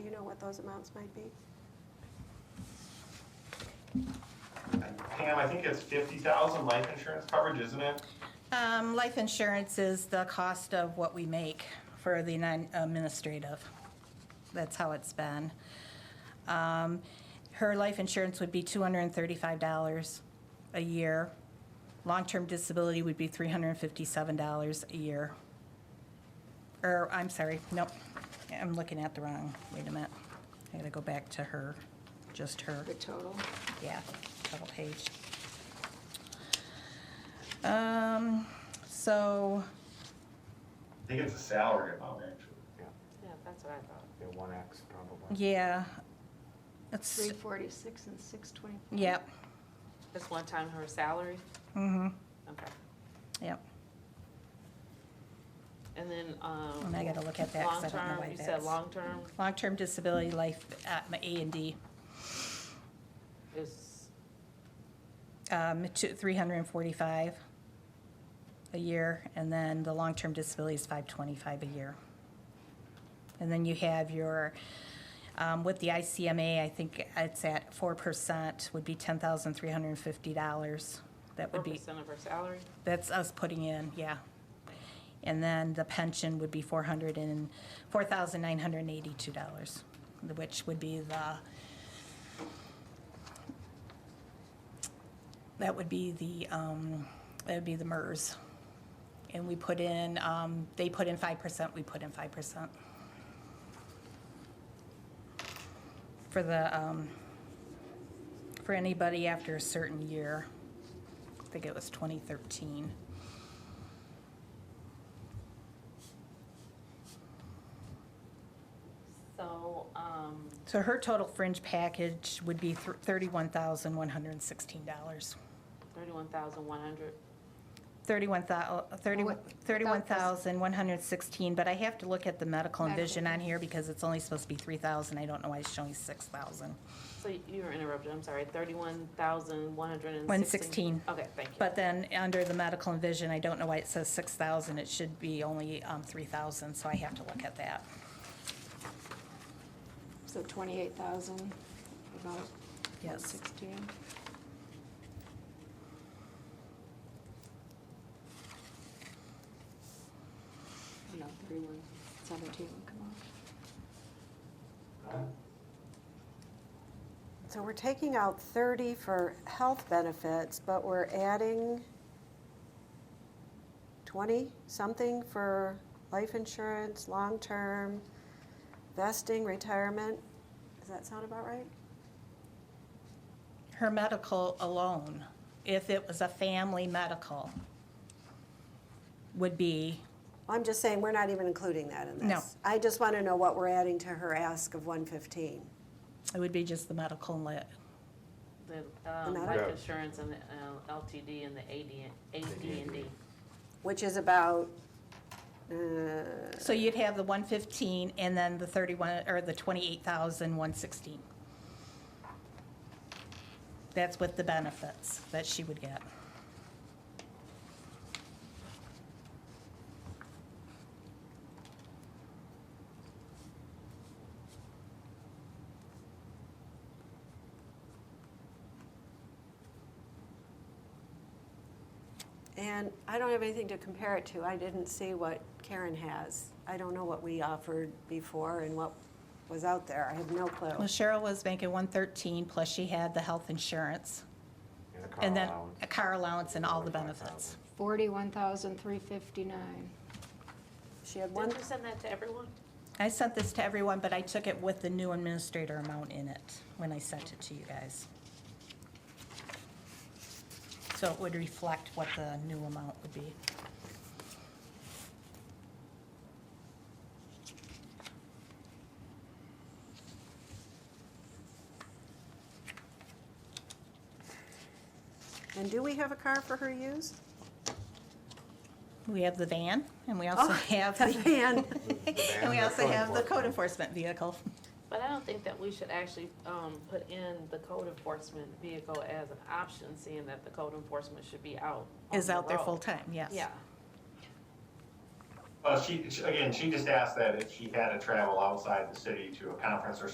what those amounts might be? Pam, I think it's fifty thousand life insurance coverage, isn't it? Um, Life insurance is the cost of what we make for the non- administrative. That's how it's been. Um, Her life insurance would be $235 a year. Long-term disability would be $357 a year. Or, I'm sorry, nope, I'm looking at the wrong, wait a minute. I gotta go back to her, just her. The total? Yeah, double page. Um, so, I think it's a salary amount, actually. Yeah, Yeah, that's what I thought. yeah, one X probably. yeah, it's, Three forty-six and six twenty-four. yep, That's one time her salary? mm-hmm, Okay. yep. And then, um. And I gotta look at that 'cause I don't know long-term, why You said that's- long-term Long-term disability life, uh, my A and D, is, um, two, three hundred and forty-five a year, and then the long-term disability is five twenty-five a year. And then you have your, um, with the ICMA, I think it's at four percent, would be ten thousand three hundred and fifty dollars. That four would be. percent of her salary? That's us putting in, yeah. And then the pension would be four hundred and, four thousand nine hundred and eighty-two dollars, which would be the, that would be the, um, that would be the MERS. And we put in, um, they put in five percent, we put in five percent. For the, um, for anybody after a certain year. I think it was 2013. So, um, So her total fringe package would be thr- $31,116. thirty-one thousand one hundred, Thirty-one thou- uh, thirty- What- without this- 31,116, but I have to look at the medical and Medical. vision on here because it's only supposed to be 3,000. I don't know why it's showing 6,000. so you were interrupted, I'm sorry, thirty-one thousand one hundred and 116. sixteen? Okay, thank you. But then, under the medical and vision, I don't know why it says 6,000. It should be only um, 3,000, so I have to look at that. So twenty-eight thousand, about Yes. sixteen? Oh, No, thirty-one, seventeen would come off. So we're taking out 30 for health benefits, but we're adding 20-something for life insurance, long-term, vesting, retirement. Does that sound about right? Her medical alone, if it was a family medical, would be I'm just saying, we're not even including that in this. No. I just want to know what we're adding to her ask of 115. It would be just the medical and lit. The, um, Another? Yeah. life insurance and the uh, LTD and the AD, and D. which is about, uh, So you'd have the one fifteen and then the thirty-one, or the twenty-eight thousand one sixteen. That's with the benefits that she would get. and I don't have anything to compare it to. I didn't see what Karen has. I don't know what we offered before and what was out there. I have no Well, clue. Cheryl was making one thirteen, plus she had the health insurance, And a car and then allowance. a car allowance and all the 45,000. benefits. Forty-one thousand, three fifty-nine. She had one, Didn't you send that to everyone? I sent this to everyone, but I took it with the new administrator amount in it when I sent it to you guys. So it would reflect what the new amount would be. and do we have a car for her use? We have the van, and we Oh. also have The the van. And we also have the code code enforcement vehicle. But I don't think that we should actually um, put in the code enforcement vehicle as an option, seeing that the code enforcement should be out. on Is the out there road. full-time, yes. Yeah, Well, she, she- again, she just asked that if she had to travel outside the city to a conference or